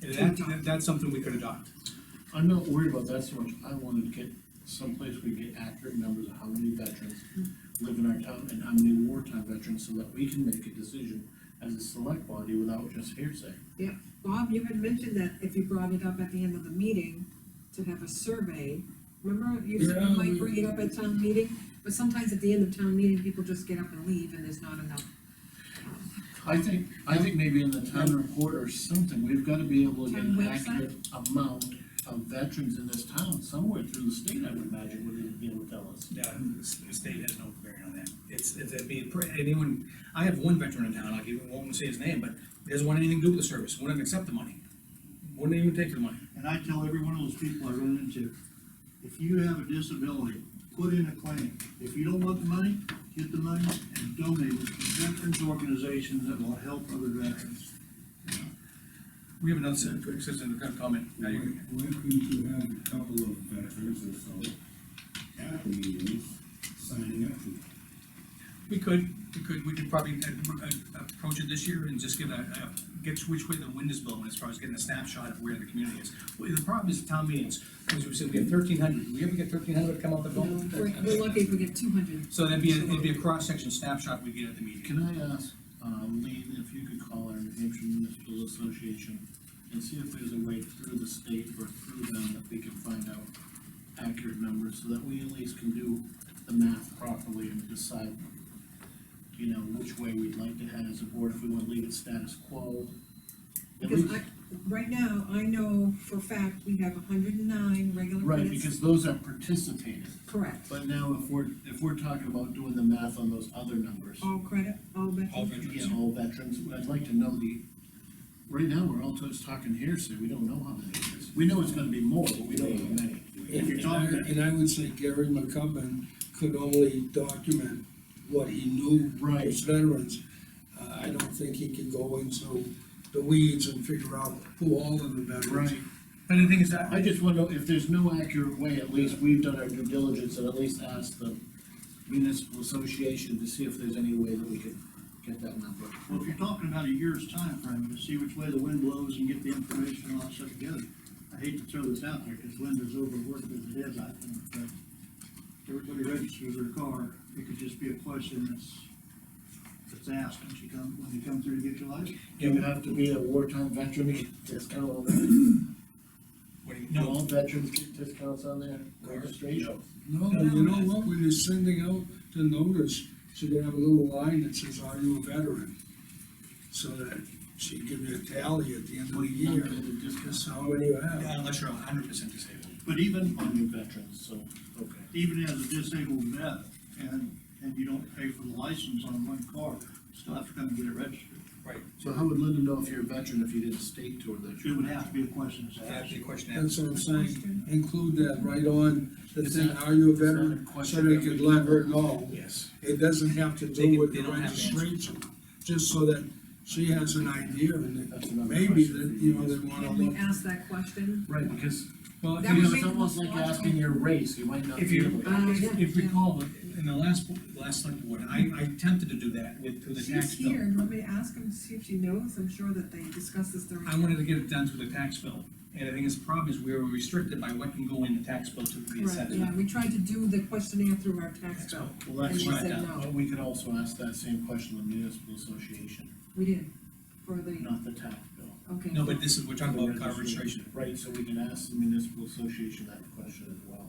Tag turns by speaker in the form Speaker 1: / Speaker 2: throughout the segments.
Speaker 1: that, that- that's something we could adopt.
Speaker 2: I'm not worried about that so much, I wanted to get someplace we get accurate numbers of how many veterans live in our town and how many wartime veterans, so that we can make a decision as a select body without just hearsay.
Speaker 3: Bob, you had mentioned that if you brought it up at the end of the meeting, to have a survey, remember, you said
Speaker 2: Yeah,
Speaker 3: you might
Speaker 2: we-
Speaker 3: bring it up at town meeting, but sometimes at the end of town meeting, people just get up and leave, and there's not enough.
Speaker 2: I think, I think maybe in the town report or something, we've gotta be able to get
Speaker 3: Town
Speaker 2: an
Speaker 3: website?
Speaker 2: accurate amount of veterans in this town, somewhere through the state, I would imagine, would be able to tell us.
Speaker 1: Yeah, the s- the state has no bearing on that. It's, it's, it'd be, pr- anyone, I have one veteran in town, I'll give, won't say his name, but he doesn't want anything to do with the service, wouldn't even accept the money. Wouldn't even take the money.
Speaker 4: And I tell every one of those people I run into, if you have a disability, put in a claim. If you don't want the money, get the money and donate it to veterans organizations that will help other veterans.
Speaker 1: We have another citizen, citizen to comment. Now
Speaker 5: Why
Speaker 1: you-
Speaker 5: why couldn't you have a couple of veterans or so at the meetings signing up to it?
Speaker 1: We could, we could, we could probably uh, uh, approach it this year and just give a, a- get which way the wind is blowing as far as getting a snapshot of where the community is. Well, The problem is town meetings, because we said we have thirteen hundred, do we ever get thirteen hundred to come out the
Speaker 3: You know, We're,
Speaker 1: vote?
Speaker 3: we're lucky if we get two hundred.
Speaker 1: So that'd be, a- it'd be a cross-section snapshot we get at the meeting.
Speaker 2: Can I ask, uh, Lee, if you could call our New Hampshire Municipal Association and see if there's a way through the state or through them that we can find out accurate numbers, so that we at least can do the math properly and decide, you know, which way we'd like to head as a board, if we wanna leave it status quo. At
Speaker 3: Because
Speaker 2: least-
Speaker 3: I, right now, I know for a fact, we have hundred and nine regular
Speaker 2: Right,
Speaker 3: minutes.
Speaker 2: because those are participating,
Speaker 3: Correct,
Speaker 2: but now if we're, if we're talking about doing the math on those other numbers.
Speaker 3: all credit, all
Speaker 1: All
Speaker 3: veterans.
Speaker 1: veterans.
Speaker 2: Yeah, all veterans, I'd like to know the, right now, we're all just talking hearsay, we don't know how many it is. We know it's gonna be more, but we don't know how many.
Speaker 6: And
Speaker 4: If you're
Speaker 6: I,
Speaker 4: talking,
Speaker 6: and I would say Gary McCubbin could only document what he knew
Speaker 2: Right.
Speaker 6: as veterans. Uh, I don't think he could go into the weeds and figure out who all of the veterans.
Speaker 1: But the thing is, I,
Speaker 2: I just wonder if there's no accurate way, at least we've done our due diligence and at least asked the municipal association to see if there's any way that we could get that number.
Speaker 4: well, if you're talking about a year's time frame, to see which way the wind blows and get the information and all that stuff together. I hate to throw this out there, because Linda's overworked as it is, I think, but everybody registers their car, it could just be a question that's, that's asked when she come, when you come through to get your license.
Speaker 2: You have to be a wartime veteran to get discount on that.
Speaker 1: what do you-
Speaker 2: Do all veterans get discounts on their registration?
Speaker 6: No, you know what, when you're sending out the notice, she could have a little line that says, are you a veteran? So that she'd give you a tally at the end of the
Speaker 2: You're
Speaker 6: year,
Speaker 2: not gonna get discounts
Speaker 6: that's how many you have.
Speaker 1: Yeah, unless you're hundred percent disabled.
Speaker 4: But even,
Speaker 2: on your veterans, so, okay.
Speaker 4: even as a disabled vet, and, and you don't pay for the license on one car, you still have to come and get it registered.
Speaker 1: Right.
Speaker 2: So how would Linda know if you're a veteran if you didn't state to her that
Speaker 4: It
Speaker 2: you're?
Speaker 4: would have to be a question that's
Speaker 1: That's
Speaker 4: asked.
Speaker 1: the question.
Speaker 6: That's what I'm saying, include that right on, the thing, are you a
Speaker 2: Is that a
Speaker 6: veteran? So
Speaker 2: question
Speaker 6: they
Speaker 2: that
Speaker 6: could
Speaker 2: we-
Speaker 6: let her know.
Speaker 2: Yes.
Speaker 6: It doesn't have to
Speaker 1: They-
Speaker 6: do with
Speaker 1: they
Speaker 6: the
Speaker 1: don't have to answer.
Speaker 6: registration, just so that she has an idea and
Speaker 2: That's
Speaker 6: that
Speaker 2: another
Speaker 6: maybe
Speaker 2: question
Speaker 6: that,
Speaker 2: for
Speaker 6: you
Speaker 2: you.
Speaker 6: know, they wanna
Speaker 3: Can we
Speaker 6: look.
Speaker 3: ask that question?
Speaker 2: Right, because,
Speaker 1: Well,
Speaker 3: That
Speaker 2: you
Speaker 3: would
Speaker 2: know,
Speaker 3: make
Speaker 2: it's
Speaker 3: the
Speaker 2: almost
Speaker 3: most
Speaker 2: like asking your race, you might not
Speaker 1: If
Speaker 2: be
Speaker 1: you,
Speaker 2: able to.
Speaker 3: Uh, yeah,
Speaker 1: if
Speaker 3: yeah.
Speaker 1: recall, in the last, last select board, I, I attempted to do that with, through the
Speaker 3: She's
Speaker 1: tax bill.
Speaker 3: here, you want me to ask him, see if she knows, I'm sure that they discussed this during.
Speaker 1: I wanted to get it done through the tax bill, and I think his problem is we were restricted by what can go in the tax bill to the
Speaker 3: Right,
Speaker 1: incentive.
Speaker 3: yeah, we tried to do the questionnaire through our tax bill,
Speaker 2: Well,
Speaker 3: and
Speaker 2: that's
Speaker 3: she
Speaker 2: right,
Speaker 3: said
Speaker 1: yeah.
Speaker 3: no,
Speaker 2: but we could also ask that same question to the municipal association,
Speaker 3: we did, for the,
Speaker 2: not the tax bill.
Speaker 3: okay.
Speaker 1: No, but this is, we're talking about car
Speaker 2: The
Speaker 1: registration.
Speaker 2: Right, so we can ask the municipal association that question as well.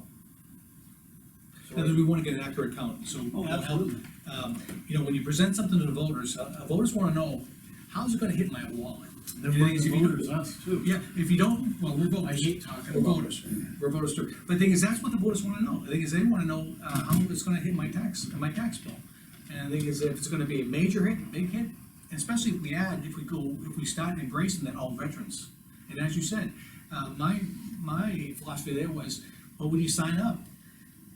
Speaker 2: So
Speaker 1: Because we want to get an accurate count, so. that'll
Speaker 4: Oh,
Speaker 1: help.
Speaker 4: absolutely.
Speaker 1: Um, you know, when you present something to the voters, uh, voters want to know, how's it gonna hit my wallet?
Speaker 2: They're running voters, us too.
Speaker 1: Yeah, if you don't, well, we're voters.
Speaker 2: I hate talking
Speaker 1: We're
Speaker 2: about
Speaker 1: voters, we're voters too. But the thing is, that's what the voters wanna know. The thing is, they wanna know, uh, how it's gonna hit my tax, my tax bill. And the thing is, if it's gonna be a major hit, big hit, and especially if we add, if we go, if we start embracing that all veterans. And as you said, uh, my, my philosophy there was, well, when you sign up,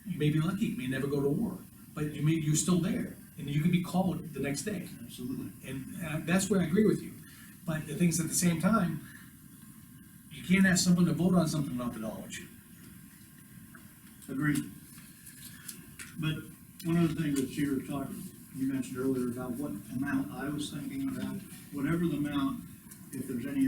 Speaker 1: you may be lucky, you may never go to war, but you may, you're still there, and you could be called the next day.
Speaker 4: Absolutely.
Speaker 1: And uh, that's where I agree with you. But the thing is, at the same time, you can't ask someone to vote on something without the knowledge.
Speaker 4: Agreed. But one other thing that you were talking, you mentioned earlier about what amount, I was thinking about whatever the amount, if there's any